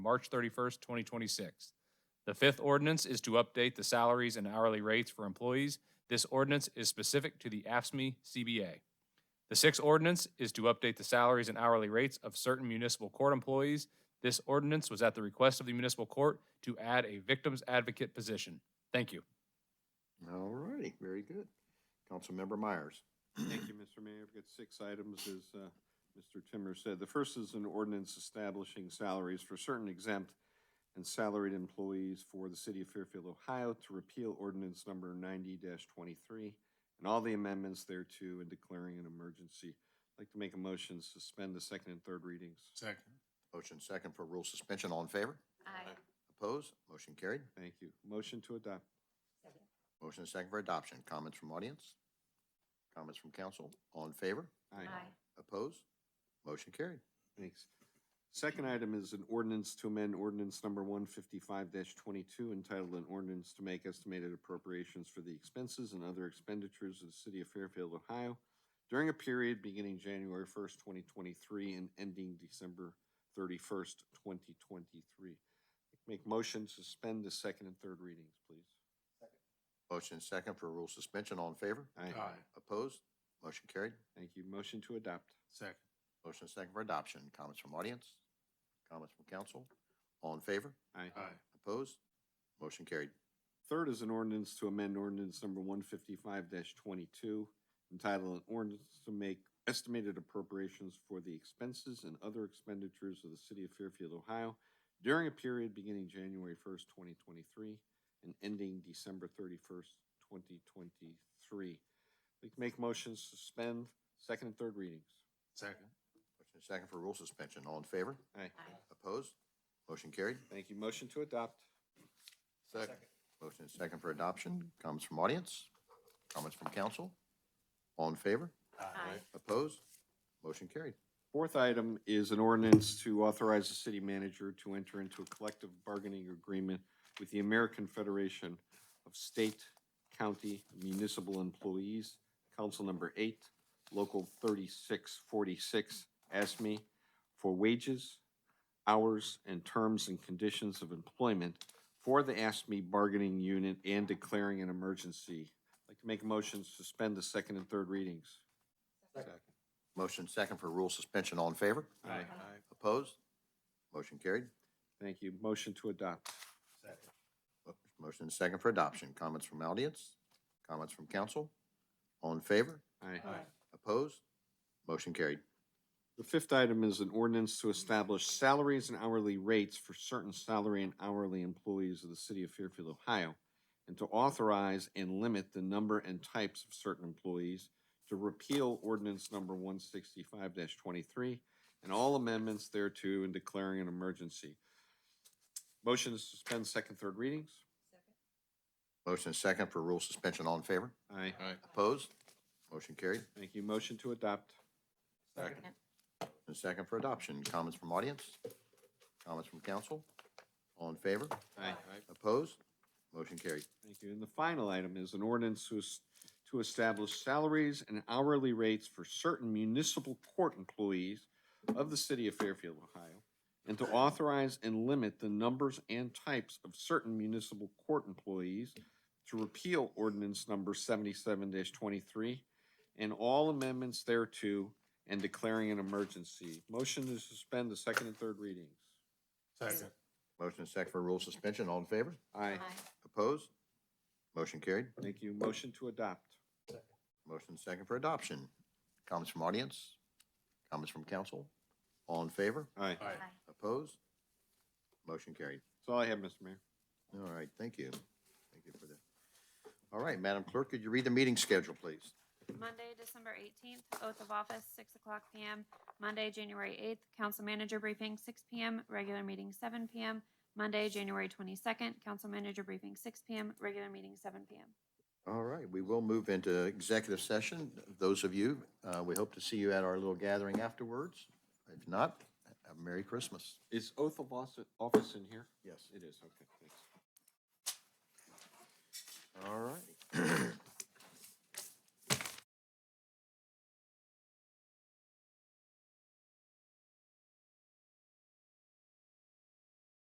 March 31st, 2026. The fifth ordinance is to update the salaries and hourly rates for employees. This ordinance is specific to the AFSMI CBA. The sixth ordinance is to update the salaries and hourly rates of certain municipal court employees. This ordinance was at the request of the municipal court to add a victim's advocate position. Thank you. All righty, very good. Councilmember Myers. Thank you, Mr. Mayor. I've got six items, as uh, Mr. Timmer said. The first is an ordinance establishing salaries for certain exempt and salaried employees for the city of Fairfield, Ohio, to repeal ordinance number ninety twenty-three and all the amendments thereto and declaring an emergency. I'd like to make a motion to suspend the second and third readings. Second. Motion second for rule suspension. All in favor? Aye. Opposed? Motion carried. Thank you. Motion to adopt. Motion second for adoption. Comments from audience? Comments from council? All in favor? Opposed? Motion carried. Thanks. Second item is an ordinance to amend ordinance number one fifty-five twenty-two entitled an ordinance to make estimated appropriations for the expenses and other expenditures of the city of Fairfield, Ohio during a period beginning January first, twenty twenty-three and ending December thirty-first, twenty twenty-three. Make motion to suspend the second and third readings, please. Motion second for rule suspension. All in favor? Aye. Opposed? Motion carried. Thank you. Motion to adopt. Second. Motion second for adoption. Comments from audience? Comments from council? All in favor? Aye. Opposed? Motion carried. Third is an ordinance to amend ordinance number one fifty-five twenty-two, entitled an ordinance to make estimated appropriations for the expenses and other expenditures of the city of Fairfield, Ohio during a period beginning January first, twenty twenty-three and ending December thirty-first, twenty twenty-three. We can make motions to suspend second and third readings. Second. Motion second for rule suspension. All in favor? Aye. Opposed? Motion carried. Thank you. Motion to adopt. Second. Motion is second for adoption. Comments from audience? Comments from council? All in favor? Aye. Opposed? Motion carried. Fourth item is an ordinance to authorize the city manager to enter into a collective bargaining agreement with the American Federation of State, County, Municipal Employees, Council Number Eight, Local thirty-six forty-six, ASME, for wages, hours, and terms and conditions of employment for the ASME bargaining unit and declaring an emergency. I'd Like to make a motion to suspend the second and third readings. Motion second for rule suspension. All in favor? Aye. Opposed? Motion carried. Thank you. Motion to adopt. Second. Mo- Motion is second for adoption. Comments from audience? Comments from council? All in favor? Aye. Opposed? Motion carried. The fifth item is an ordinance to establish salaries and hourly rates for certain salary and hourly employees of the city of Fairfield, Ohio, and to authorize and limit the number and types of certain employees, to repeal ordinance number one sixty-five twenty-three and all amendments thereto and declaring an emergency. Motion to suspend second, third readings? Motion is second for rule suspension. All in favor? Aye. Opposed? Motion carried. Thank you. Motion to adopt. Second. And second for adoption. Comments from audience? Comments from council? All in favor? Aye. Opposed? Motion carried. Thank you. And the final item is an ordinance to, es- to establish salaries and hourly rates for certain municipal court employees of the city of Fairfield, Ohio, and to authorize and limit the numbers and types of certain municipal court employees to repeal ordinance number seventy-seven twenty-three and all amendments thereto and declaring an emergency. Motion to suspend the second and third readings. Second. Motion is second for rule suspension. All in favor? Aye. Opposed? Motion carried. Thank you. Motion to adopt. Motion is second for adoption. Comments from audience? Comments from council? All in favor? Aye. Aye. Opposed? Motion carried. That's all I have, Mr. Mayor. All right, thank you. Thank you for that. All right, Madam Clerk, could you read the meeting schedule, please? Monday, December eighteenth, oath of office, six o'clock PM. Monday, January eighth, council manager briefing, six PM, regular meeting, seven PM. Monday, January twenty-second, council manager briefing, six PM, regular meeting, seven PM. All right, we will move into executive session. Those of you, uh, we hope to see you at our little gathering afterwards. If not, have a Merry Christmas. Is oath of office- office in here? Yes. It is, okay, thanks. All right.